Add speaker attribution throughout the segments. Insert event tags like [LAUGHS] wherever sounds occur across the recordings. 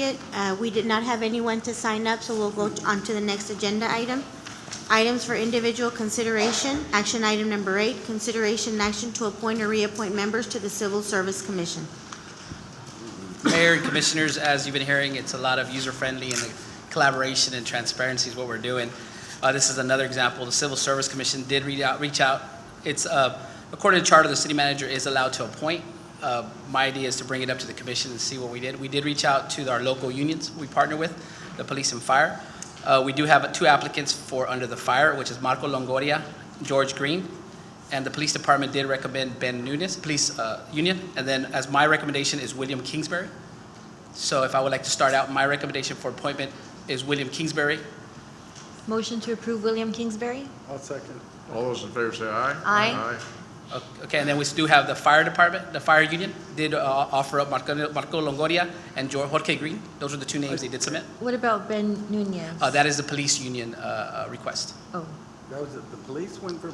Speaker 1: It, uh, We did not have anyone to sign up, so we'll go on to the next agenda item. Items for individual consideration. Action item number eight, consideration and action to appoint or reappoint members to the Civil Service Commission.
Speaker 2: Mayor and Commissioners, as you've been hearing, it's a lot of user-friendly and the collaboration and transparency is what we're doing. Uh, This is another example. The Civil Service Commission did reach out, reach out. It's, uh, according to charter, the city manager is allowed to appoint. Uh, My idea is to bring it up to the commission and see what we did. We did reach out to our local unions we partner with, the police and fire. Uh, We do have two applicants for under the fire, which is Marco Longoria, George Green. And the police department did recommend Ben Nunes, police uh, union. And then as my recommendation is William Kingsbury. So if I would like to start out, my recommendation for appointment is William Kingsbury.
Speaker 3: Motion to approve William Kingsbury?
Speaker 4: I'll second.
Speaker 5: All those in favor say aye.
Speaker 3: Aye.
Speaker 2: O- Okay, and then we do have the fire department, the fire union did uh, offer up Marco Marco Longoria and Jor- Jorge Green. Those were the two names they did submit.
Speaker 3: What about Ben Nunez?
Speaker 2: Uh, That is the police union uh, uh, request.
Speaker 3: Oh,
Speaker 4: That was, it. the police went for,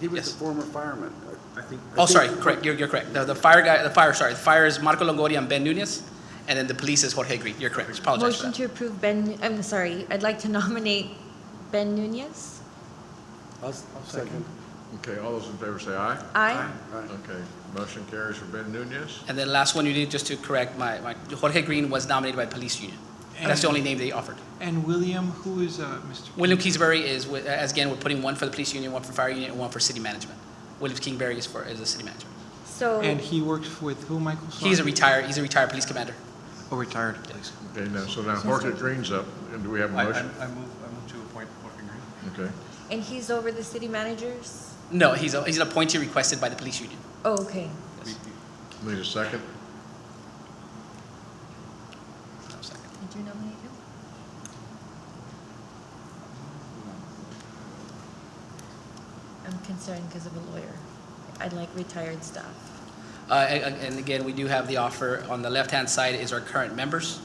Speaker 4: he was
Speaker 2: Yes.
Speaker 4: the former fireman. I think.
Speaker 2: Oh, sorry, correct, you're, you're correct. The the fire guy, the fire, sorry, the fire is Marco Longoria and Ben Nunes. And then the police is Jorge Green. You're correct, apologize for
Speaker 3: motion
Speaker 2: that.
Speaker 3: to approve Ben, I'm sorry, I'd like to [LAUGHS] nominate Ben Nunez?
Speaker 4: I'll s- I'll second.
Speaker 5: Okay, all those in favor say aye.
Speaker 3: Aye.
Speaker 4: Aye.
Speaker 5: Okay, motion carries for Ben Nunez.
Speaker 2: And then last one you did, just to correct my, my, Jorge Green was nominated by police union. That's the only name they offered.
Speaker 6: And William, who is uh, Mr.?
Speaker 2: William Kingsbury is, wi- as again, we're putting one for the police union, one for fire union, and one for city management. William Kingsbury is for, is the city manager.
Speaker 3: So,
Speaker 6: And he works with who, Michael?
Speaker 2: He's a
Speaker 6: Sorry.
Speaker 2: retired, he's a retired police commander.
Speaker 6: Oh, retired, please.
Speaker 5: Okay, now, so now Horkett Green's up, and do we have
Speaker 7: I,
Speaker 5: a
Speaker 7: I I
Speaker 5: motion?
Speaker 7: move, I move to appoint Horton Green.
Speaker 5: Okay,
Speaker 3: and he's over the city managers?
Speaker 2: No, he's, a- he's an appointee requested by the police union.
Speaker 3: Oh, okay.
Speaker 5: need a second?
Speaker 2: No, second.
Speaker 3: Did you nominate him? I'm concerned because of a lawyer. I'd like retired staff.
Speaker 2: Uh, a- a- And again, we do have the offer, on the left-hand side is our current members,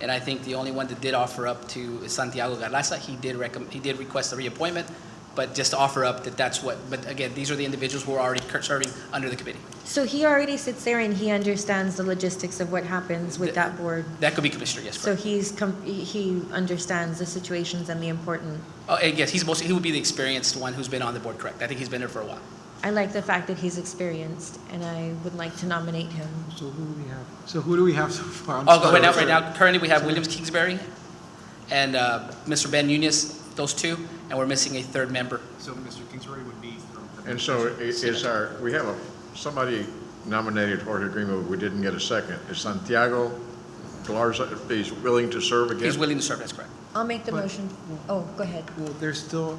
Speaker 2: and I think the only one that did offer up to is Santiago Garlaza. He did recommend, he did request a reappointment, but just to offer up that that's what, but again, these are the individuals who are already cur- serving under the committee.
Speaker 3: So he already sits there and he understands the logistics of what happens with that board.
Speaker 2: That could be Commissioner, yes,
Speaker 3: So
Speaker 2: correct.
Speaker 3: he's, com- he- he understands the situations and the important.
Speaker 2: Oh, and yes, he's most, he would be the experienced one who's been on the board, correct. I think he's been there for a while.
Speaker 3: I like the fact that he's experienced, and I would like to nominate him.
Speaker 6: So who do we have? So who do we have so far? I'm
Speaker 2: Oh, go-
Speaker 6: sorry.
Speaker 2: right now, right now, currently, we have Williams Kingsbury and uh, Mr. Ben Nunes, those two, and we're missing a third member.
Speaker 7: So Mr. Kingsbury would be from. the-
Speaker 5: And so i- is our, we have a, somebody nominated Horkett Green, but we didn't get a second. Is Santiago Galarza, if he's willing to serve again?
Speaker 2: He's willing to serve, that's correct.
Speaker 3: I'll make the
Speaker 6: But-
Speaker 3: motion. Oh, go ahead.
Speaker 6: Well, there's still,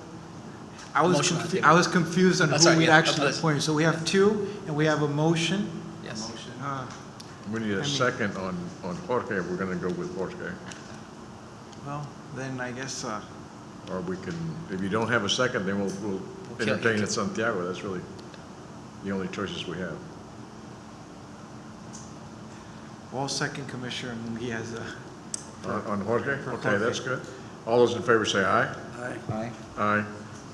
Speaker 6: I was,
Speaker 2: Motion on the
Speaker 6: confu-
Speaker 2: table.
Speaker 6: I was confused on
Speaker 2: Oh, sorry,
Speaker 6: who we
Speaker 2: yeah,
Speaker 6: actually
Speaker 2: apologies.
Speaker 6: appointed. So we have two, and we have a motion.
Speaker 2: Yes.
Speaker 6: Uh,
Speaker 5: We need
Speaker 6: I
Speaker 5: a
Speaker 6: mean-
Speaker 5: second on, on Jorge, if we're gonna go with Jorge.
Speaker 6: Well, then I guess, uh,
Speaker 5: Or we can, if you don't have a second, then we'll, we'll
Speaker 2: Okay.
Speaker 5: entertain it Santiago. That's really the only choices we have.
Speaker 6: well, second commissioner, and he has a.
Speaker 5: On on Jorge?
Speaker 6: For
Speaker 5: Okay,
Speaker 6: Jorge.
Speaker 5: that's good. All those in favor say aye.
Speaker 4: Aye.
Speaker 6: Aye.
Speaker 5: Aye.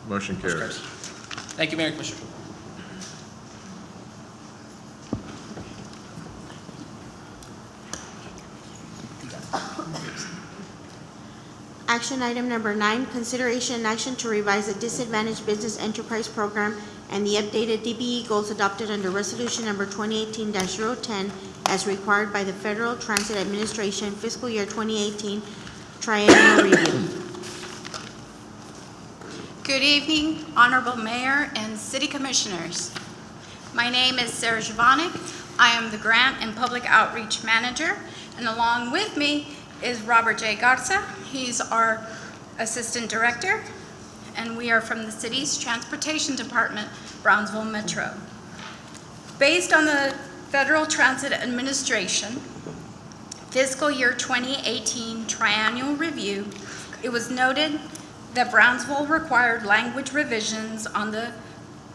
Speaker 5: Motion carries.
Speaker 2: Thank you, Mayor and Commissioner.
Speaker 1: Action item number nine, consideration and action to revise the disadvantaged business enterprise program and the updated DBE goals adopted under resolution number twenty eighteen 10 as required by the Federal Transit Administration fiscal year twenty eighteen triennial review.
Speaker 8: Good evening, Honorable Mayor and City Commissioners. My name is Sarah Jovanik. I am the Grant and Public Outreach Manager, and along with me is Robert J. Garza. He's our Assistant Director, and we are from the city's Transportation Department, Brownsville Metro. Based on the Federal Transit Administration, fiscal year 2018 triennial review, it was noted that Brownsville required language revisions on the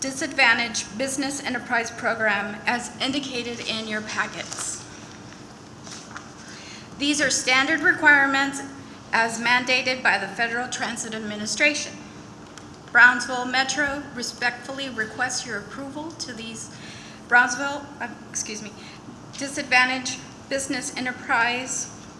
Speaker 8: disadvantaged business enterprise program as indicated in your packets. These are standard requirements as mandated by the Federal Transit Administration. Brownsville Metro respectfully requests your approval to these Brownsville, uh, excuse me, disadvantaged business enterprise